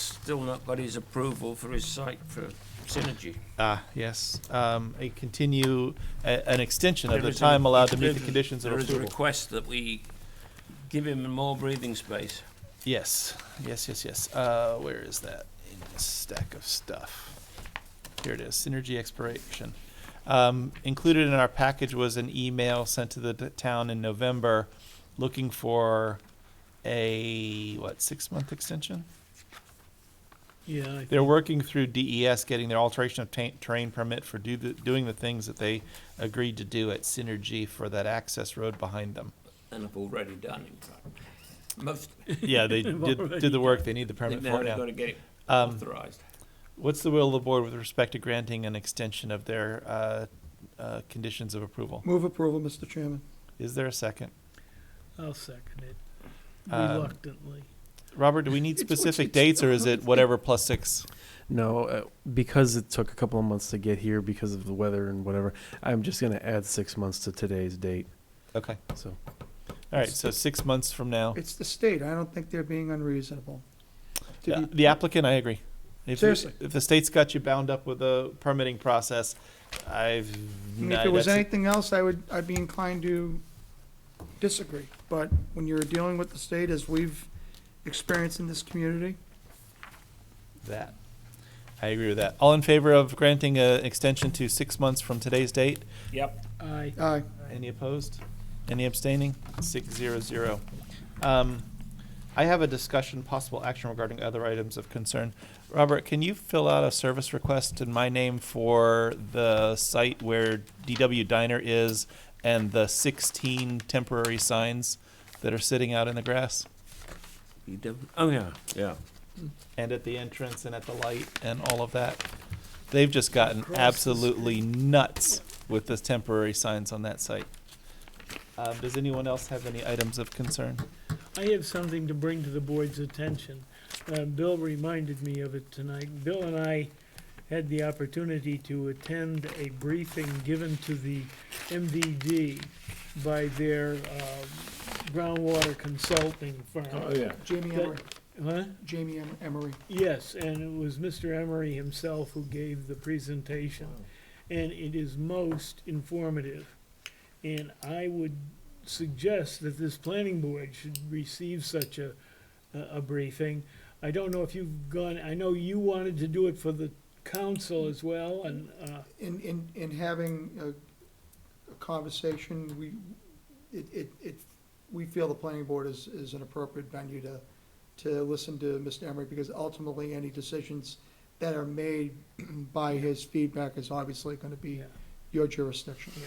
still not got his approval for his site for Synergy. Ah, yes. Um, a continue, a, an extension of There the is a- time allowed to meet there the is- conditions of There is a approval. request that we give him more breathing space. Yes, yes, yes, yes. Uh, where is that in this stack of stuff? Here it is, synergy expiration. Um, included in our package was an email sent to the t- town in November looking for a, what, six-month extension? Yeah, I- They're working through DES, getting their alteration of ta- terrain permit for do the, doing the things that they agreed to do at Synergy for that access road behind them. And I've already done in fact. Most, Yeah, they They've did, already did the work they need the permit they've for now now. got to get it Um, authorized. what's the will of the board with respect to granting an extension of their, uh, uh, conditions of approval? Move approval, Mr. Chairman. Is there a second? I'll second it Um, reluctantly. Robert, do we need specific dates or is it whatever plus six? No, uh, because it took a couple of months to get here because of the weather and whatever, I'm just going to add six months to today's date. Okay, So, all right, so six months from now. It's the state. I don't think they're being unreasonable. Did Uh, you- The applicant, I agree. If you- Seriously. If the state's got you bound up with a permitting process, I've. I mean, no, If it was that's- anything else, I would, I'd be inclined to disagree. But when you're dealing with the state, as we've experienced in this community, That. I agree with that. All in favor of granting an extension to six months from today's date? Yep. Aye. aye. Any opposed? Any abstaining? Six zero zero. Um, I have a discussion, possible action regarding other items of concern. Robert, can you fill out a service request in my name for the site where DW Diner is and the sixteen temporary signs that are sitting out in the grass? You don't- Oh, yeah, yeah. and at the entrance and at the light and all of that. They've just gotten Across the absolutely nuts with the temporary signs on that site. Um, does anyone else have any items of concern? I have something to bring to the board's attention. Uh, Bill reminded me of it tonight. Bill and I had the opportunity to attend a briefing given to the MVD by their uh, groundwater consulting Oh, firm. yeah. Jamie Emery, Huh? Jamie Em- Emery. Yes, and it was Mr. Emery himself who gave the presentation, and it is most informative. And I would suggest that this planning board should receive such a, a a briefing. I don't know if you've gone, I know you wanted to do it for the council as well, and, uh, In, in, in having a, a conversation, we, it, it, it, we feel the planning board is, is an appropriate venue to, to listen to Mr. Emery, because ultimately, any decisions that are made by his feedback is obviously gonna be yeah, your jurisdiction. yeah.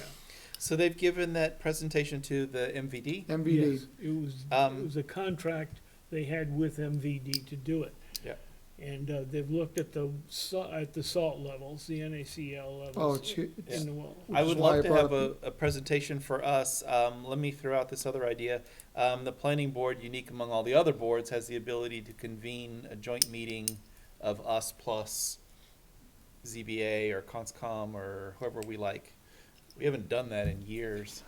So they've given that presentation to the MVD? MVD. Yes, It was, Um, it was a contract they had with MVD to do it. Yeah. And, uh, they've looked at the sa- at the salt levels, the NaCl levels. Oh, it's, hu- it's In the well. I Which is would why I love to brought have a, up- a presentation for us. Um, let me throw out this other idea. Um, the planning board, unique among all the other boards, has the ability to convene a joint meeting of us plus ZBA or CONSCOM or whoever we like. We haven't done that in years.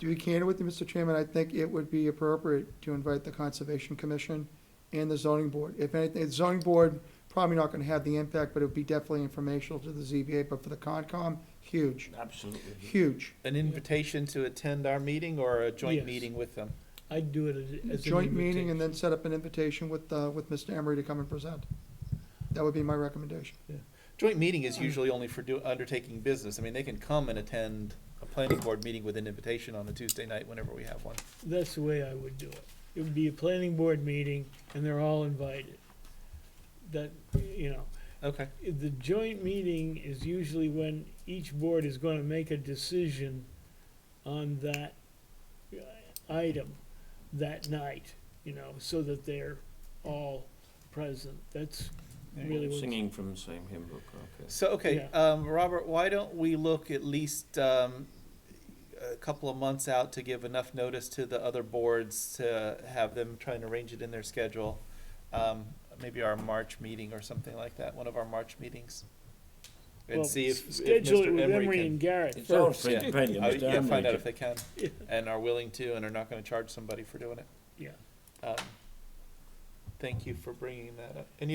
To be candid with you, Mr. Chairman, I think it would be appropriate to invite the Conservation Commission and the zoning board. If anything, the zoning board probably not gonna have the impact, but it would be definitely informational to the ZBA, but for the Concom, huge, Absolutely. huge. An invitation to attend our meeting or a joint Yes. meeting with them? I'd do it as- as an Joint meeting invitation. and then set up an invitation with, uh, with Mr. Emery to come and present. That would be my recommendation. Joint meeting is usually only for do, undertaking business. I mean, they can come and attend a planning board meeting with an invitation on a Tuesday night whenever we have one. That's the way I would do it. It would be a planning board meeting and they're all invited. That, you know, Okay. the joint meeting is usually when each board is gonna make a decision on that uh, item that night, you know, so that they're all present. That's really what's. Singing from the same hymn book, okay. So, okay, um, Robert, why don't we look at least, um, a couple of months out to give enough notice to the other boards to have them try and arrange it in their schedule? Um, maybe our March meeting or something like that, one of our March meetings? Well, And see if, s- if Schedule it Mr. with Emery Emery can. and Garrett It's all first. yeah. depending Uh, on yeah, the find out if they can Yeah. and are willing to and are not gonna charge somebody for doing it. Yeah. Um, Thank you for bringing that up. Any